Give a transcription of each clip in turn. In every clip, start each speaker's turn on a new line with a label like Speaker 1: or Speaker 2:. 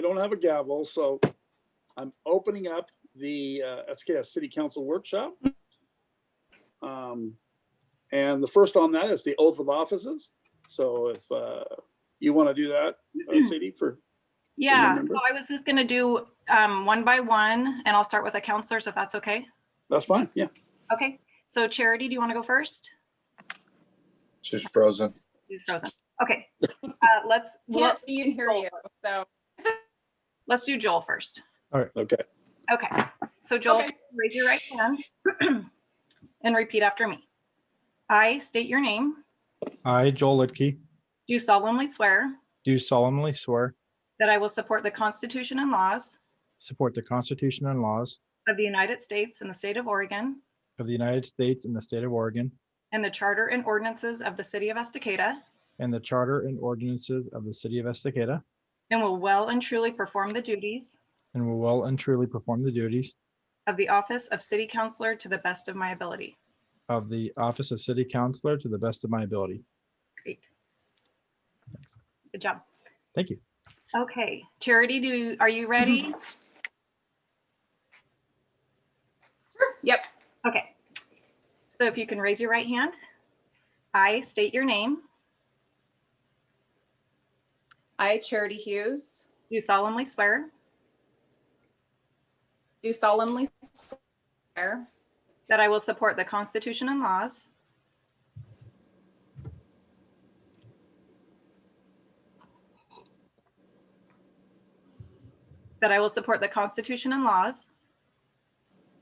Speaker 1: don't have a gavel, so I'm opening up the uh, SKS City Council Workshop. Um, And the first on that is the oath of offices. So if uh, you want to do that, uh, Sadie, for,
Speaker 2: Yeah,
Speaker 1: remember?
Speaker 2: so I was just gonna do um, one by one, and I'll start with a counselor, so if that's okay.
Speaker 1: that's fine, yeah.
Speaker 2: Okay, so Charity, do you want to go first?
Speaker 3: She's frozen.
Speaker 2: She's frozen. Okay, uh, let's,
Speaker 4: Can't
Speaker 2: let's,
Speaker 4: see and hear you, so.
Speaker 2: let's do Joel first.
Speaker 1: Okay.
Speaker 2: Okay, so Joel,
Speaker 4: Okay.
Speaker 2: raise your right hand and repeat after me. I state your name,
Speaker 5: I, Joel Lidkey,
Speaker 2: do solemnly swear
Speaker 5: do solemnly swear,
Speaker 2: that I will support the Constitution and laws
Speaker 5: support the Constitution and laws
Speaker 2: of the United States and the state of Oregon
Speaker 5: of the United States and the state of Oregon,
Speaker 2: and the charter and ordinances of the city of Estacada,
Speaker 5: and the charter and ordinances of the city of Estacada,
Speaker 2: and will well and truly perform the duties
Speaker 5: and will well and truly perform the duties
Speaker 2: of the office of city councillor to the best of my ability.
Speaker 5: of the office of city councillor to the best of my ability.
Speaker 2: Great. Good job.
Speaker 5: Thank you.
Speaker 2: Okay, Charity, do, are you ready?
Speaker 4: Yep,
Speaker 2: Okay. So if you can raise your right hand. I state your name,
Speaker 4: I, Charity Hughes,
Speaker 2: do solemnly swear
Speaker 4: do solemnly swear
Speaker 2: that I will support the Constitution and laws that I will support the Constitution and laws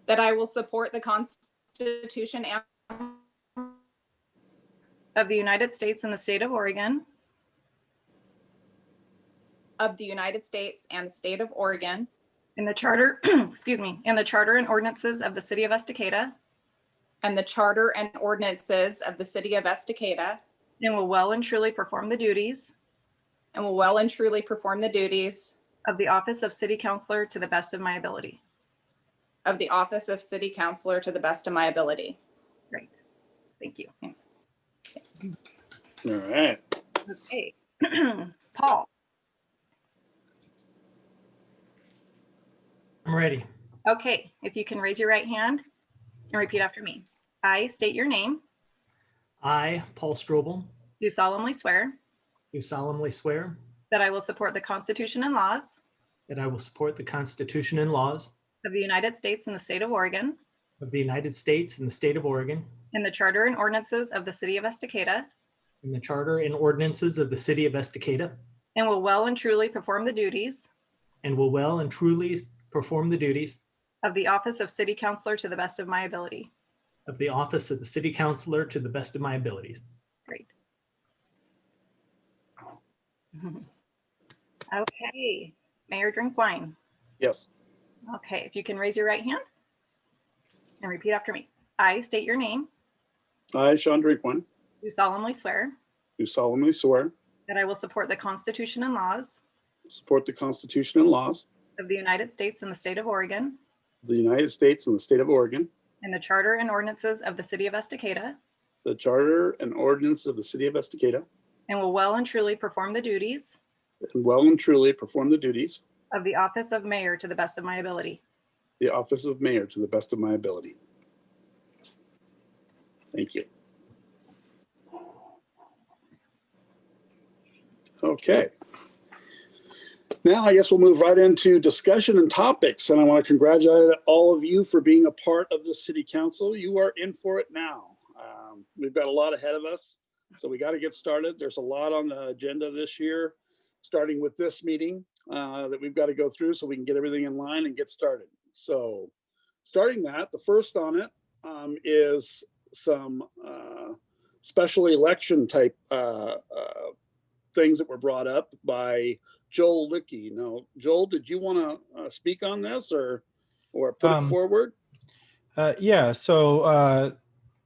Speaker 4: that I will support the Constitution and
Speaker 2: of the United States and the state of Oregon,
Speaker 4: of the United States and the state of Oregon,
Speaker 2: In the charter, excuse me, in the charter and ordinances of the city of Estacada,
Speaker 4: and the charter and ordinances of the city of Estacada,
Speaker 2: and will well and truly perform the duties
Speaker 4: and will well and truly perform the duties
Speaker 2: of the office of city councillor to the best of my ability.
Speaker 4: of the office of city councillor to the best of my ability.
Speaker 2: Great. Thank you.
Speaker 4: Yes.
Speaker 1: All right.
Speaker 2: Okay. Paul,
Speaker 6: I'm ready.
Speaker 2: okay, if you can raise your right hand and repeat after me. I state your name,
Speaker 6: I, Paul Strobel,
Speaker 2: do solemnly swear
Speaker 6: do solemnly swear
Speaker 2: that I will support the Constitution and laws
Speaker 6: that I will support the Constitution and laws
Speaker 2: of the United States and the state of Oregon,
Speaker 6: of the United States and the state of Oregon,
Speaker 2: and the charter and ordinances of the city of Estacada,
Speaker 6: and the charter and ordinances of the city of Estacada,
Speaker 2: and will well and truly perform the duties
Speaker 6: and will well and truly perform the duties
Speaker 2: of the office of city councillor to the best of my ability.
Speaker 6: of the office of the city councillor to the best of my abilities.
Speaker 2: Great. Okay, Mayor Drink Wine.
Speaker 1: Yes.
Speaker 2: Okay, if you can raise your right hand and repeat after me. I state your name,
Speaker 1: I, Sean Drinkwan,
Speaker 2: do solemnly swear
Speaker 1: do solemnly swear,
Speaker 2: that I will support the Constitution and laws
Speaker 1: support the Constitution and laws
Speaker 2: of the United States and the state of Oregon,
Speaker 1: of the United States and the state of Oregon,
Speaker 2: and the charter and ordinances of the city of Estacada,
Speaker 1: the charter and ordinance of the city of Estacada,
Speaker 2: and will well and truly perform the duties
Speaker 1: and well and truly perform the duties
Speaker 2: of the office of mayor to the best of my ability.
Speaker 1: the office of mayor to the best of my ability. Thank you. Okay. Now, I guess we'll move right into discussion and topics, and I want to congratulate all of you for being a part of the city council. You are in for it now. Um, We've got a lot ahead of us, so we got to get started. There's a lot on the agenda this year, starting with this meeting uh, that we've got to go through so we can get everything in line and get started. So starting that, the first on it um, is some uh, special election type uh, uh, things that were brought up by Joel Licky. Now, Joel, did you want to speak on this or, or put it
Speaker 5: Um,
Speaker 1: forward?
Speaker 5: Uh, yeah, so uh,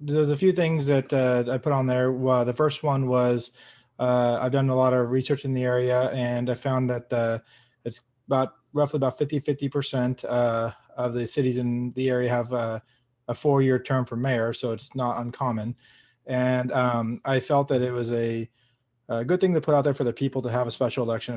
Speaker 5: there's a few things that uh, I put on there. Well, the first one was uh, I've done a lot of research in the area, and I found that uh, it's about roughly about 50 50 percent uh, of the cities in the area have uh, a four year term for mayor, so it's not uncommon. And um, I felt that it was a, a good thing to put out there for the people to have a special election.